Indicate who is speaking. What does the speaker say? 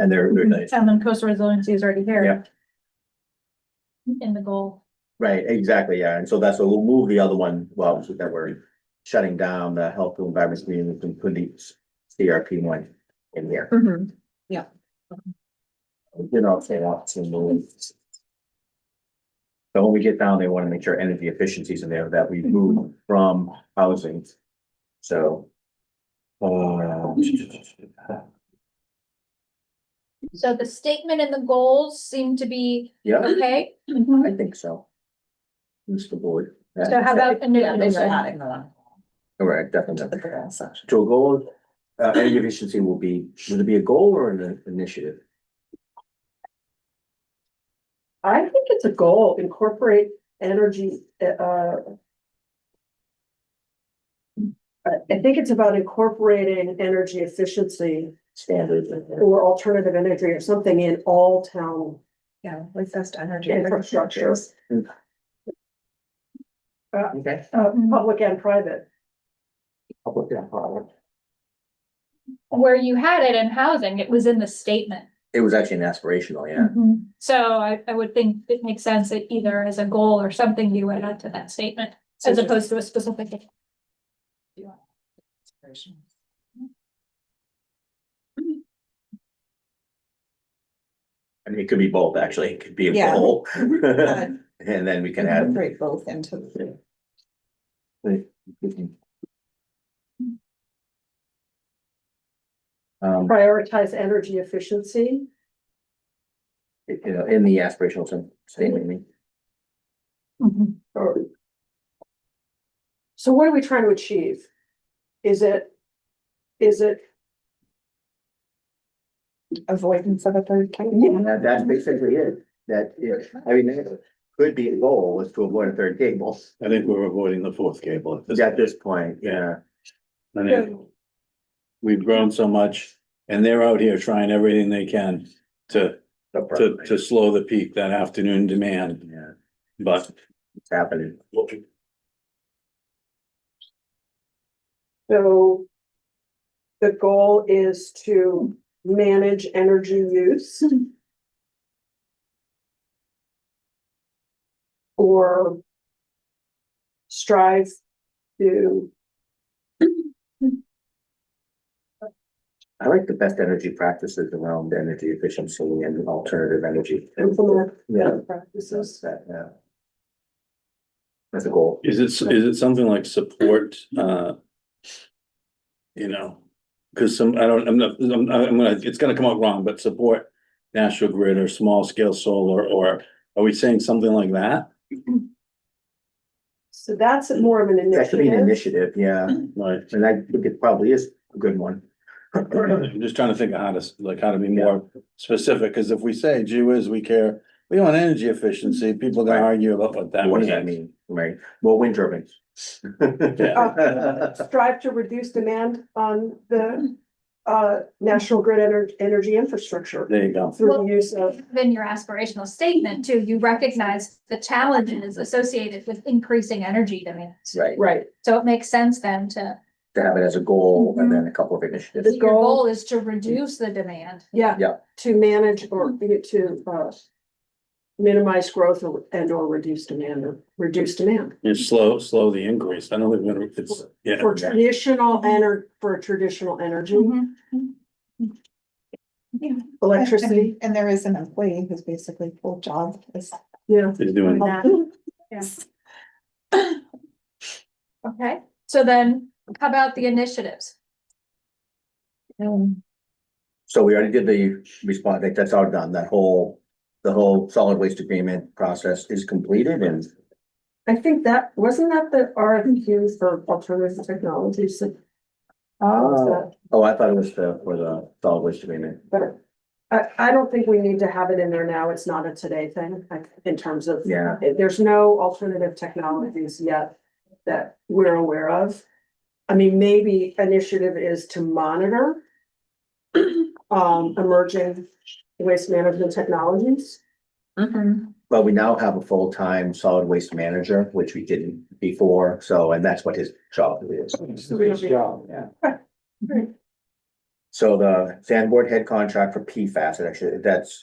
Speaker 1: and they're, they're
Speaker 2: Mm-hmm.
Speaker 1: nice.
Speaker 3: And then coastal resiliency is already
Speaker 1: Yeah.
Speaker 3: there. In the goal.
Speaker 1: Right, exactly, yeah, and so that's, what we'll move the other one, well, obviously that we're shutting down the health and environment community, we can put the CRP one in here.
Speaker 3: Mm-hmm.
Speaker 1: You know, say that to move. So when we get down, they wanna make sure energy efficiencies in there that we move from housing, so. uh,
Speaker 2: So the statement and the goals seem to be
Speaker 1: yeah,
Speaker 2: okay.
Speaker 1: I think so. Mr. Board.
Speaker 2: So how about a
Speaker 3: Yeah,
Speaker 2: new?
Speaker 3: those are not in the one.
Speaker 1: Correct, definitely.
Speaker 3: The goal section.
Speaker 1: To a goal, uh, energy efficiency will be, should it be a goal or an initiative?
Speaker 4: I think it's a goal, incorporate energy, uh. I I think it's about incorporating energy efficiency
Speaker 1: Standard.
Speaker 4: or alternative energy or something in all town
Speaker 3: Yeah, like best energy.
Speaker 4: infrastructures.
Speaker 1: Okay.
Speaker 4: Uh, public and private.
Speaker 1: Public and private.
Speaker 2: Where you had it in housing, it was in the statement.
Speaker 1: It was actually an aspirational, yeah.
Speaker 2: Mm-hmm.
Speaker 3: Mhm.
Speaker 2: So I, I would think it makes sense that either as a goal or something you would add to that statement as opposed to a specific.
Speaker 1: I mean, it could be both, actually. It could be a
Speaker 3: Yeah.
Speaker 1: goal.
Speaker 3: But-
Speaker 1: And then we can add.
Speaker 3: Incorporate both into the.
Speaker 1: Um,
Speaker 4: Prioritize energy efficiency.
Speaker 1: you know, in the aspirational term, statement, I mean.
Speaker 3: Mm-hmm.
Speaker 4: or- So what are we trying to achieve? Is it? Is it?
Speaker 3: Avoidance of a third
Speaker 1: And that, that's basically it. That, it- I mean, it could be a goal was to avoid a third cable
Speaker 5: I think we're avoiding the fourth cable at this.
Speaker 1: at this point, yeah.
Speaker 5: I mean, We've grown so much and they're out here trying everything they can to, to, to slow the peak, that afternoon demand,
Speaker 1: Yeah,
Speaker 5: but.
Speaker 1: it's happening.
Speaker 4: So the goal is to manage energy use. Or strive to,
Speaker 1: I like the best energy practices around energy efficiency and alternative energy.
Speaker 4: Implement.
Speaker 1: Yeah.
Speaker 4: practices.
Speaker 1: that, yeah. That's a goal.
Speaker 5: Is it, is it something like support, uh? You know, cause some, I don't, I'm not, I'm, I'm gonna, it's gonna come out wrong, but support national grid or small scale solar, or are we saying something like that?
Speaker 4: So that's more of an
Speaker 1: That should be an
Speaker 4: initiative.
Speaker 1: initiative, yeah,
Speaker 5: Like,
Speaker 1: and I think it probably is a good one.
Speaker 5: I'm just trying to think of how to, s- like, how to be more specific, because if we say, gee whiz, we care, we want energy efficiency, people are gonna
Speaker 1: Right.
Speaker 5: argue about what that
Speaker 1: What does that
Speaker 5: means.
Speaker 1: mean, right? Well, wind turbines.
Speaker 5: Uh,
Speaker 4: Strive to reduce demand on the uh national grid ener- energy infrastructure
Speaker 5: There you go.
Speaker 4: through the use of.
Speaker 2: Then your aspirational statement too, you recognize the challenges associated with increasing energy demands.
Speaker 1: Right,
Speaker 4: Right.
Speaker 2: So it makes sense then to,
Speaker 1: to have it as a goal and then a couple of
Speaker 4: The
Speaker 1: initiatives.
Speaker 2: your goal
Speaker 4: goal-
Speaker 2: is to reduce the demand.
Speaker 4: Yeah.
Speaker 1: Yeah.
Speaker 4: To manage or be it to uh. Minimize growth or- and or reduce demand or reduce demand
Speaker 5: You slow, slow the increase. I don't think we're gonna- it's, yeah,
Speaker 4: for traditional ener- for traditional energy,
Speaker 2: Mm-hmm.
Speaker 4: electricity.
Speaker 3: And there is an employee who's basically full job is.
Speaker 4: Yeah.
Speaker 5: it's doing,
Speaker 2: That. Okay, so then how about the initiatives?
Speaker 3: Um,
Speaker 1: So we already did the response, like, that's all done, that whole, the whole solid waste agreement process is completed and
Speaker 4: I think that, wasn't that the RFQ for alternative technologies? that-
Speaker 3: oh,
Speaker 4: that-
Speaker 1: Oh, I thought it was the, for the solid waste agreement.
Speaker 4: But I I don't think we need to have it in there now. It's not a today thing, like in terms of.
Speaker 1: Yeah.
Speaker 4: There's no alternative technologies yet that we're aware of. I mean, maybe initiative is to monitor um, emerging waste management technologies.
Speaker 3: Mm-hmm.
Speaker 1: Well, we now have a full-time solid waste manager, which we didn't before, so, and that's what his job is.
Speaker 4: his
Speaker 1: job, yeah. So the sandboard head contract for PFAS, it actually, that's